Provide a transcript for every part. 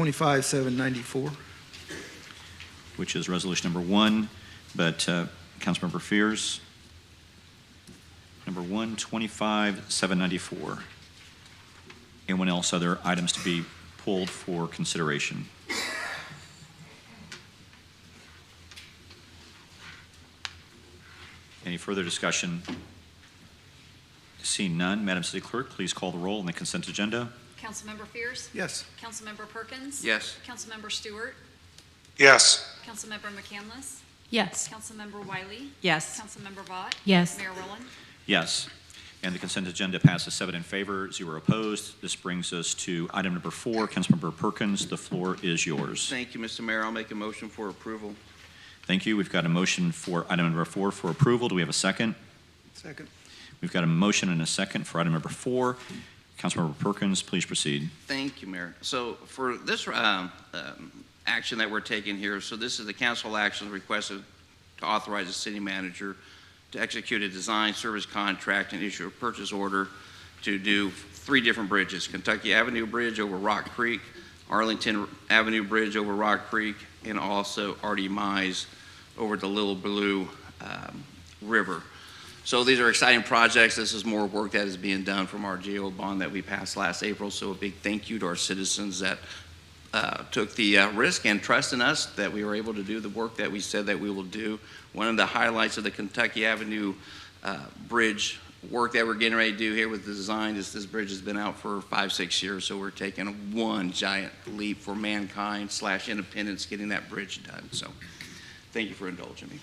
twenty-five, seven ninety-four. which is resolution number one, but uh, Councilmember Fears, number one, 25,794. Anyone else, other items to be pulled for consideration? Any further discussion? Seeing none, Madam City Clerk, please call the roll on the consent agenda. Councilmember Fierce. Yes. Councilmember Perkins. Yes. Councilmember Stewart. yes, Councilmember McCandless. Yes. Councilmember Wiley. Yes. Councilmember Vought. Yes. Mayor Rowland. Yes. And the consent agenda passes seven in favor, zero opposed. This brings us to item number four. Councilmember Perkins, the floor is yours. Thank you, Mr. Mayor. I'll make a motion for approval. Thank you. We've got a motion for item number four for approval. Do we have a second? Second. We've got a motion and a second for item number four. Councilmember Perkins, please proceed. Thank you, Mayor. So for this um, um, action that we're taking here, so this is the council action requested to authorize the city manager to execute a design service contract and issue a purchase order to do three different bridges, Kentucky Avenue Bridge over Rock Creek, Arlington Avenue Bridge over Rock Creek, and also Artie Mize over the Little Blue um, River. So these are exciting projects. This is more work that is being done from our GO bond that we passed last April. So a big thank you to our citizens that uh, took the uh, risk and trust in us that we were able to do the work that we said that we will do. One of the highlights of the Kentucky Avenue uh, Bridge work that we're getting ready to do here with the design is this bridge has been out for five, six years. So we're taking one giant leap for mankind slash independence, getting that bridge done. So thank you for indulging me.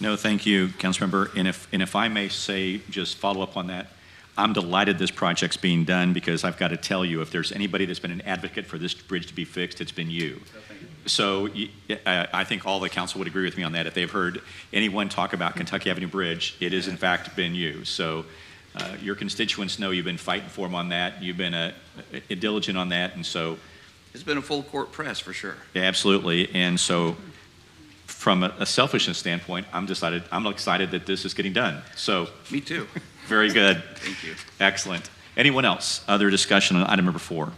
No, thank you, Councilmember. And if, and if I may say, just follow up on that, I'm delighted this project's being done because I've got to tell you, if there's anybody that's been an advocate for this bridge to be fixed, it's been you. So y- I I think all the council would agree with me on that. If they've heard anyone talk about Kentucky Avenue Bridge, it has in fact been you. So uh, your constituents know you've been fighting for them on that. You've been uh, diligent on that. And so It's been a full court press for sure. yeah, Absolutely, and so from a a selfishness standpoint, I'm decided, I'm excited that this is getting done. So, Me too. very good, Thank you. excellent. Anyone else, other discussion on item number four?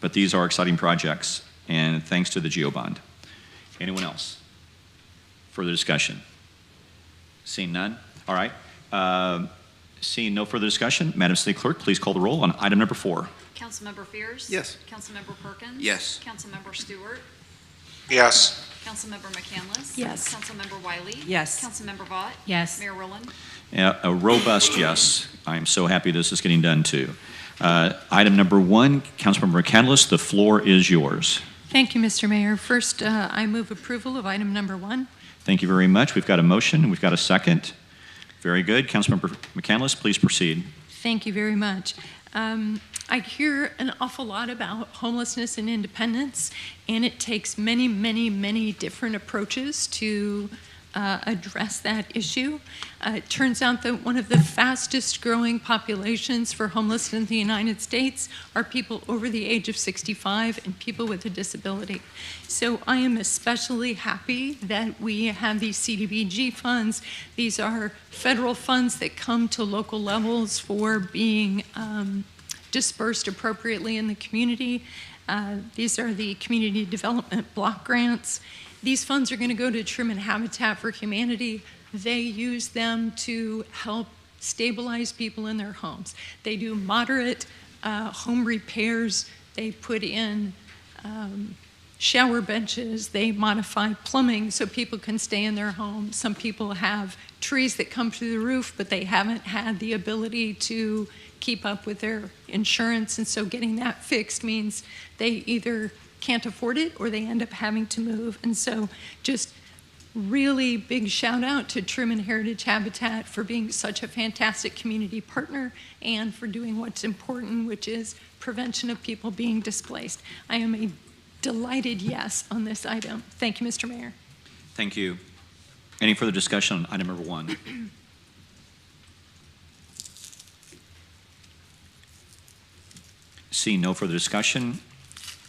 But these are exciting projects, and thanks to the GEO bond. Anyone else? Further discussion? Seeing none? All right. Um, Seeing no further discussion, Madam City Clerk, please call the roll on item number four. Councilmember Fierce. Yes. Councilmember Perkins. Yes. Councilmember Stewart. yes, Councilmember McCandless. Yes. Councilmember Wiley. Yes. Councilmember Vought. Yes. Mayor Rowland. A a robust yes. I am so happy this is getting done too. Uh, Item number one, Councilmember Catalyst, the floor is yours. Thank you, Mr. Mayor. First, uh, I move approval of item number one. Thank you very much. We've got a motion, we've got a second. Very good. Councilmember McCandless, please proceed. Thank you very much. Um, I hear an awful lot about homelessness and independence, and it takes many, many, many different approaches to uh, address that issue. Uh, it turns out that one of the fastest growing populations for homelessness in the United States are people over the age of 65 and people with a disability. So I am especially happy that we have these CDBG funds. These are federal funds that come to local levels for being um, dispersed appropriately in the community. Uh, these are the community development block grants. These funds are going to go to Truman Habitat for Humanity. They use them to help stabilize people in their homes. They do moderate uh, home repairs. They put in um, shower benches. They modify plumbing so people can stay in their home. Some people have trees that come through the roof, but they haven't had the ability to keep up with their insurance. And so getting that fixed means they either can't afford it or they end up having to move. And so just really big shout out to Truman Heritage Habitat for being such a fantastic community partner and for doing what's important, which is prevention of people being displaced. I am a delighted yes on this item. Thank you, Mr. Mayor. Thank you. Any further discussion on item number one? Seeing no further discussion,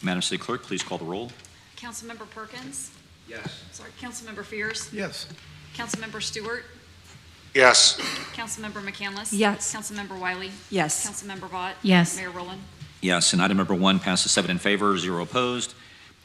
Madam City Clerk, please call the roll. Councilmember Perkins. Yes. Sorry, Councilmember Fierce. Yes. Councilmember Stewart. yes, Councilmember McCandless. Yes. Councilmember Wiley. Yes. Councilmember Vought. Yes. Mayor Rowland. Yes, and item number one passes seven in favor, zero opposed.